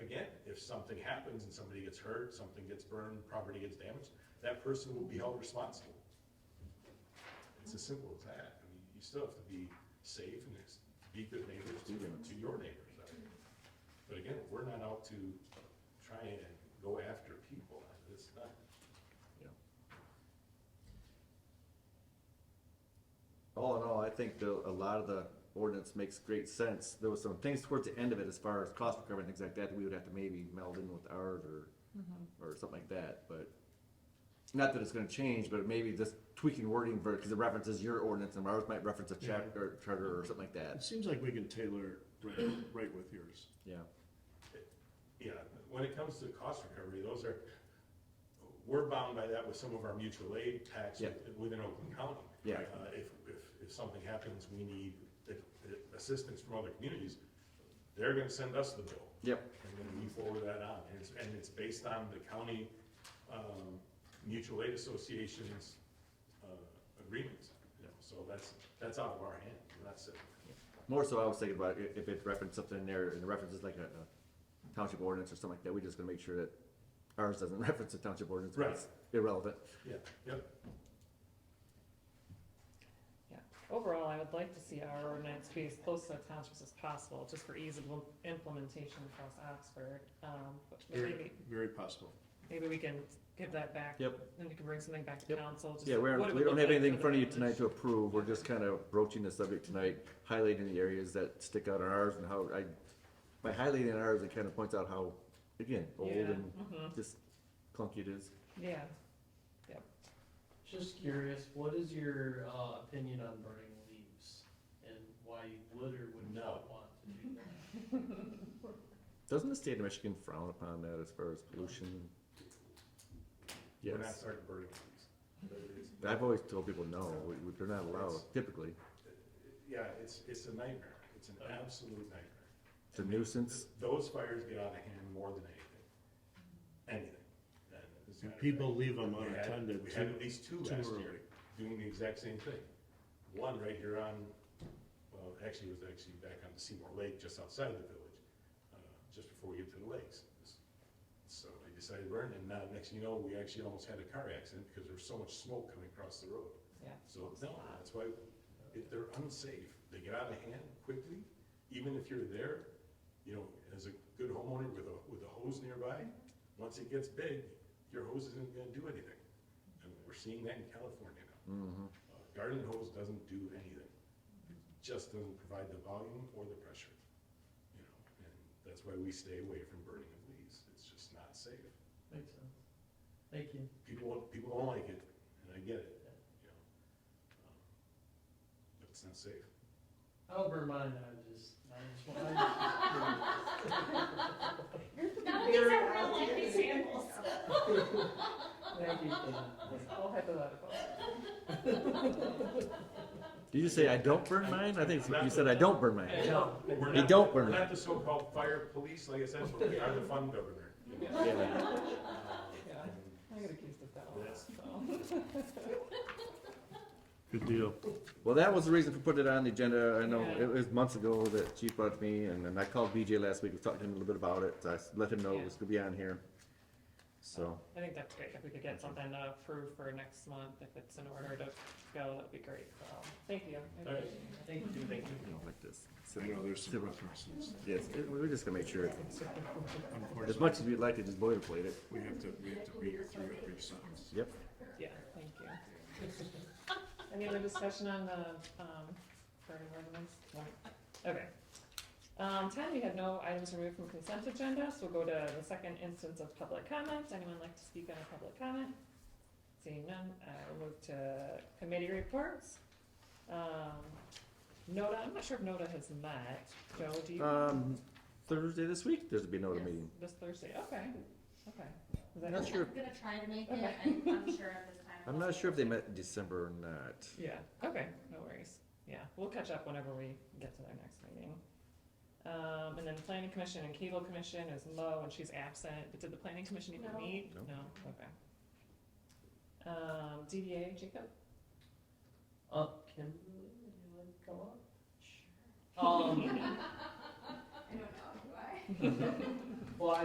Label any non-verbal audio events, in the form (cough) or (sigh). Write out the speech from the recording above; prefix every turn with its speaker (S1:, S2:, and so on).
S1: if something happens and somebody gets hurt, something gets burned, property gets damaged, that person will be held responsible. It's as simple as that. I mean, you still have to be safe and it's- be good neighbors to, to your neighbors. I mean, But again, we're not out to try and go after people. It's not,
S2: All in all, I think the, a lot of the ordinance makes great sense. There was some things towards the end of it as far as cost recovery and things like that, that we would have to maybe meld in with ours or, or something like that, but not that it's gonna change, but maybe just tweaking wording for, cause it references your ordinance and ours might reference a chapter, or charter or something like
S3: It
S2: that,
S3: seems like we can tailor right,
S4: Mm-hmm.
S3: right with yours.
S2: yeah.
S1: Yeah, when it comes to cost recovery, those are, we're bound by that with some of our mutual aid tax
S2: Yeah.
S1: within Oakland County.
S2: Yeah.
S1: Uh, If, if, if something happens, we need uh, uh, assistance from other communities, they're gonna send us the bill.
S2: Yep,
S1: And then we forward that on, and it's, and it's based on the county, um, mutual aid associations, uh, agreements. you know, So that's, that's out of our hand, and that's it.
S2: more so I was thinking about i- if it referenced something in there and it references like a, a township ordinance or something like that, we just gonna make sure that ours doesn't (laughs) reference a township ordinance, but it's irrelevant.
S1: Yeah, yep,
S5: Yeah, overall, I would like to see our ordinance be as close to the townships as possible, just for ease of im- implementation across Oxford. Um, but
S3: Very,
S5: maybe,
S3: very possible.
S5: maybe we can give that back.
S2: Yep.
S5: And we can bring something back to
S2: Yep.
S5: council. just
S2: Yeah, we're,
S5: what it
S2: we
S5: would
S2: don't
S5: look
S2: have
S5: like
S2: anything in
S5: for
S2: front of
S5: the
S2: you tonight to
S5: village.
S2: approve, we're just kind of broaching the subject tonight, highlighting the areas that stick out on ours and how I, by highlighting ours, it kind of points out how, again, old
S5: Yeah,
S2: and
S5: mhm,
S2: just clunky it is.
S5: yeah.
S6: Just curious, what is your uh, opinion on burning leaves and why you would or would not want to do that?
S2: Doesn't the state of Michigan frown upon that as far as pollution?
S1: we're not
S2: Yes,
S1: starting burning things. But it's-
S2: I've always told people, no, we- we- they're not allowed typically,
S1: Yeah, it's, it's a nightmare. It's an absolute nightmare.
S2: it's a nuisance,
S1: Those fires get out of hand more than anything, anything. And as a matter of
S3: And people
S1: fact,
S3: leave them
S1: we had-
S3: unattended
S1: We had
S3: too,
S1: at least two
S3: too
S1: last year
S3: early.
S1: doing the exact same thing. One right here on, well, actually it was actually back on the Seymour Lake, just outside of the village, uh, just before we get to the lakes. So they decided to burn, it, and now next thing you know, we actually almost had a car accident because there was so much smoke coming across the road.
S5: Yeah.
S1: So, no, that's why, if they're unsafe, they get out of hand quickly, even if you're there, you know, as a good homeowner with a, with a hose nearby, once it gets big, your hose isn't gonna do anything. And we're seeing that in California now.
S2: Mhm.
S1: Uh, Garden hose doesn't do anything. It just doesn't provide the volume or the pressure, you know, and that's why we stay away from burning of leaves. It's just not safe.
S6: Makes sense. Thank you.
S1: People, people don't like it, and I get it, you know. Um, But it's not safe.
S6: I don't burn mine, I just, I just want.
S4: Now these are real life (laughs) examples.
S6: Thank you.
S5: All hypothetical.
S2: Did you say I don't burn mine? I think it's- you said I don't burn mine.
S6: No,
S1: We're
S2: They
S1: not-
S2: don't burn
S1: We're
S2: it.
S1: not the so-called fire police, like I said, but we are the fun governor. you know.
S2: Yeah.
S5: Yeah,
S1: Um,
S5: I get accused of that a lot,
S1: Yes.
S5: so.
S3: Good deal.
S2: Well, that was the reason for putting it on the agenda. I know
S5: Yeah.
S2: it was months ago that Chief brought it to me, and, and I called BJ last week. We talked to him a little bit about it. I s- let him know it
S5: Yeah.
S2: was gonna be on here. So,
S5: I think that's great, if we could get something uh, approved for next month, if it's in order to go, that'd be great, so, thank you. I
S1: All right.
S5: appreciate it.
S6: Thank you. Thank you.
S2: you know, like this.
S3: So now there's some references.
S2: Yes, it- we're just gonna make sure. it's- As
S3: Unfortunately,
S2: much as we'd like to just boilerplate it.
S3: we have to, we have to read through every sentence.
S2: Yep.
S5: Yeah, thank you. (laughs) Any other discussion on the, um, burning ordinance? No? Okay. Um, ten, we had no items removed from consent agenda, so we'll go to the second instance of public comment. Anyone like to speak on a public comment? Seeing none, I will move to committee reports. Um, Noda, I'm not sure if Noda has met. Joe, do you?
S2: Um, Thursday this week, there's gonna be another meeting.
S5: This Thursday, okay, okay. Is
S2: I'm
S5: that-
S2: not sure.
S4: I'm gonna try to make it,
S5: Okay.
S4: I'm, I'm sure at this time.
S2: I'm not sure if they met in December or not.
S5: Yeah, okay, no worries. Yeah, we'll catch up whenever we get to their next meeting. Um, and then planning commission and cable commission is low and she's absent, but did the planning commission even
S4: No.
S5: meet?
S2: No.
S5: okay. Um, DDA, Jacob?
S6: Uh, Kimberly, would you like to come up? Um,
S4: I don't know, do I?